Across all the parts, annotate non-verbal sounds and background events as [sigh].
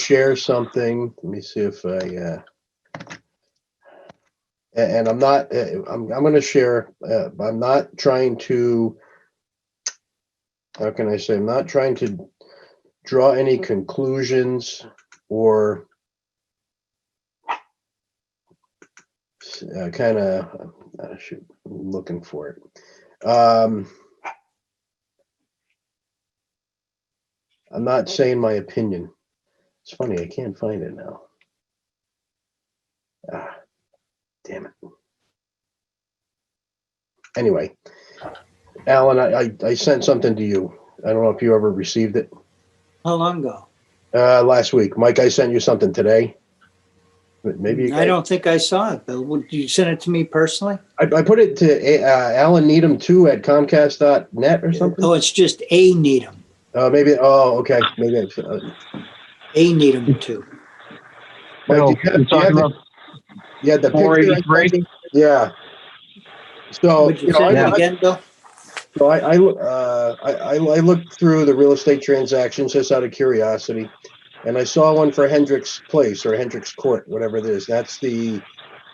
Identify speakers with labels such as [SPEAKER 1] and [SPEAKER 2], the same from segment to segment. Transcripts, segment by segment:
[SPEAKER 1] share something. Let me see if I, uh, a- and I'm not, uh, I'm, I'm going to share, uh, I'm not trying to, how can I say, I'm not trying to draw any conclusions or uh, kind of, I should, I'm looking for it. Um, I'm not saying my opinion. It's funny, I can't find it now. Ah, damn it. Anyway, Alan, I, I, I sent something to you. I don't know if you ever received it.
[SPEAKER 2] How long ago?
[SPEAKER 1] Uh, last week, Mike, I sent you something today. But Maybe you
[SPEAKER 2] I
[SPEAKER 1] guys-
[SPEAKER 2] don't think I saw it, Bill. Would you send it to me personally?
[SPEAKER 1] I, I put it to uh, Alan Needham two at Comcast.net or something.
[SPEAKER 2] Oh, it's just A Needham,
[SPEAKER 1] Uh, maybe. Oh, okay. Maybe. It's, uh,
[SPEAKER 2] A Needham two.
[SPEAKER 1] Mike,
[SPEAKER 3] Bill,
[SPEAKER 1] do you have-
[SPEAKER 3] you're
[SPEAKER 1] do you have
[SPEAKER 3] talking
[SPEAKER 1] the-
[SPEAKER 3] about
[SPEAKER 1] yeah, the picture. I sent
[SPEAKER 3] 483?
[SPEAKER 1] you? Yeah. So
[SPEAKER 2] Would
[SPEAKER 1] you
[SPEAKER 2] you
[SPEAKER 1] know, Oh,
[SPEAKER 2] send
[SPEAKER 1] I,
[SPEAKER 2] it
[SPEAKER 1] I,
[SPEAKER 2] again, Bill?
[SPEAKER 1] so I, I, uh, I, I I looked through the real estate transactions just out of curiosity, and I saw one for Hendricks Place or Hendricks Court, whatever it is. That's the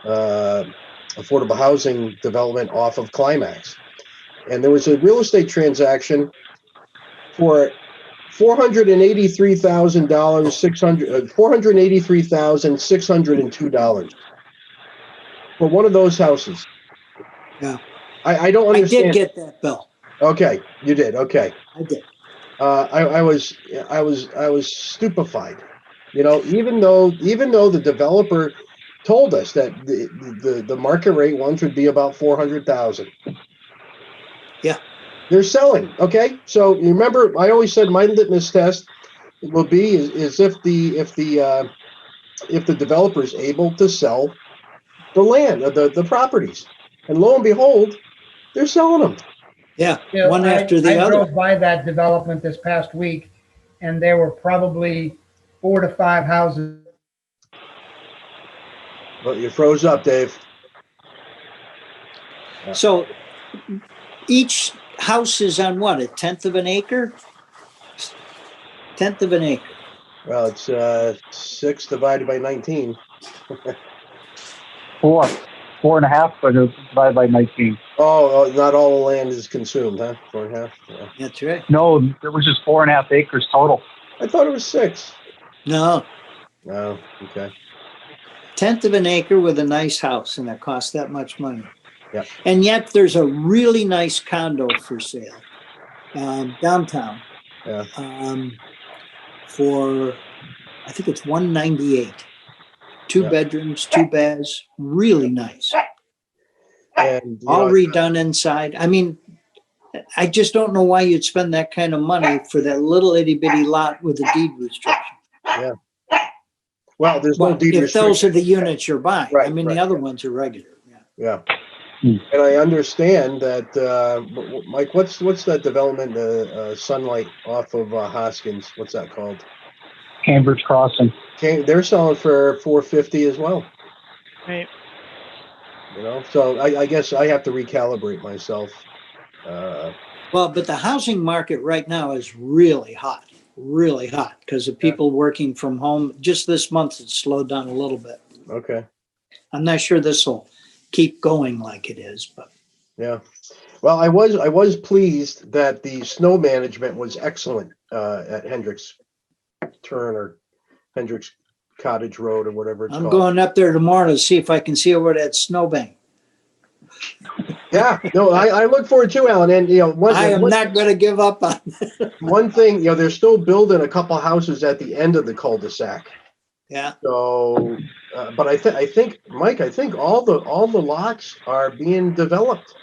[SPEAKER 1] uh, affordable housing development off of Climax, and there was a real estate transaction for. Four hundred and eighty-three thousand dollars, six hundred, uh, four hundred eighty-three thousand six hundred and two dollars for one of those houses.
[SPEAKER 2] Yeah.
[SPEAKER 1] I, I don't
[SPEAKER 2] I
[SPEAKER 1] understand.
[SPEAKER 2] did get that, Bill.
[SPEAKER 1] Okay, you did. Okay,
[SPEAKER 2] I did.
[SPEAKER 1] uh, I, I was, I was, I was stupefied. You know, even though, even though the developer told us that the the, the market rate ones would be about four hundred thousand.
[SPEAKER 2] Yeah.
[SPEAKER 1] they're selling. Okay, so you remember, I always said my litmus test will be is, is if the if the uh, if the developer is able to sell the land, uh, the the properties, and lo and behold, they're selling them.
[SPEAKER 2] Yeah,
[SPEAKER 4] You know,
[SPEAKER 2] one
[SPEAKER 4] I-
[SPEAKER 2] after the
[SPEAKER 4] I
[SPEAKER 2] other.
[SPEAKER 4] drove by that development this past week, and there were probably four to five houses.
[SPEAKER 1] But you froze up, Dave.
[SPEAKER 2] So each house is on what, a tenth of an acre? Tenth of an acre.
[SPEAKER 1] Well, it's uh, six divided by 19.
[SPEAKER 3] four, four and a half, but it's divided by 19.
[SPEAKER 1] Oh, oh, not all the land is consumed, huh? Four and a half. Yeah.
[SPEAKER 2] That's right.
[SPEAKER 3] No, there was just four and a half acres total.
[SPEAKER 1] I thought it was six.
[SPEAKER 2] No,
[SPEAKER 1] No, okay.
[SPEAKER 2] tenth of an acre with a nice house and it costs that much money.
[SPEAKER 1] Yeah.
[SPEAKER 2] And yet there's a really nice condo for sale um, downtown.
[SPEAKER 1] Yeah.
[SPEAKER 2] Um, for I think it's one ninety eight. Two
[SPEAKER 1] Yeah.
[SPEAKER 2] bedrooms, two baths, really nice.
[SPEAKER 1] And you
[SPEAKER 2] All
[SPEAKER 1] know,
[SPEAKER 2] redone inside. I mean, I just don't know why you'd spend that kind of money for that little itty bitty lot with a deed restriction.
[SPEAKER 1] well, there's no
[SPEAKER 2] Well,
[SPEAKER 1] deed
[SPEAKER 2] if those
[SPEAKER 1] restriction.
[SPEAKER 2] are the units you're buying, I
[SPEAKER 1] Right,
[SPEAKER 2] mean, the
[SPEAKER 1] right,
[SPEAKER 2] other ones are regular. Yeah.
[SPEAKER 1] Yeah.
[SPEAKER 3] Hmm.
[SPEAKER 1] And I understand that, uh, w- w- Mike, what's what's that development, uh, uh, Sunlight off of uh, Hoskins? What's that called?
[SPEAKER 3] Cambridge Crossing.
[SPEAKER 1] Can, they're selling for 450 as well.
[SPEAKER 5] Right.
[SPEAKER 1] You know, so I, I guess I have to recalibrate myself. Uh,
[SPEAKER 2] Well, but the housing market right now is really hot, really hot because of people working from home. Just this month, it slowed down a little bit.
[SPEAKER 1] okay.
[SPEAKER 2] I'm not sure this will keep going like it is, but
[SPEAKER 1] Well, I was I was pleased that the snow management was excellent uh, at Hendricks Turn or Hendricks Cottage Road or whatever it's
[SPEAKER 2] I'm
[SPEAKER 1] called.
[SPEAKER 2] going up there tomorrow to see if I can see over that snowbank.
[SPEAKER 1] yeah, no, I, I look forward to Alan. And you know, one,
[SPEAKER 2] I am
[SPEAKER 1] one-
[SPEAKER 2] not going to give up on. [laughs]
[SPEAKER 1] one thing, you know, they're still building a couple houses at the end of the cul-de-sac.
[SPEAKER 2] Yeah,
[SPEAKER 1] So, uh, but I think I think Mike, I think all the all the lots are being developed.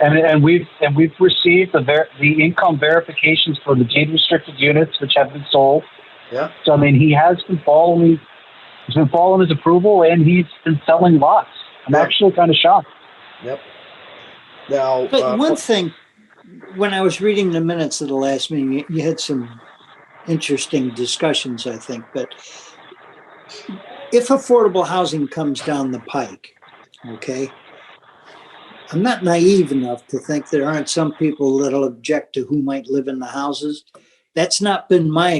[SPEAKER 3] And, and we've and we've received the ver- the income verifications for the deed restricted units which have been sold.
[SPEAKER 1] Yeah.
[SPEAKER 3] So I mean, he has been following. He's been following his approval, and he's been selling lots. I'm
[SPEAKER 1] Yeah.
[SPEAKER 3] actually kind of shocked.
[SPEAKER 1] Now,
[SPEAKER 2] but
[SPEAKER 1] uh,
[SPEAKER 2] one thing, when I was reading the minutes of the last meeting, you, you had some interesting discussions, I think. But if affordable housing comes down the pike, okay, I'm not naive enough to think there aren't some people that'll object to who might live in the houses. That's not been my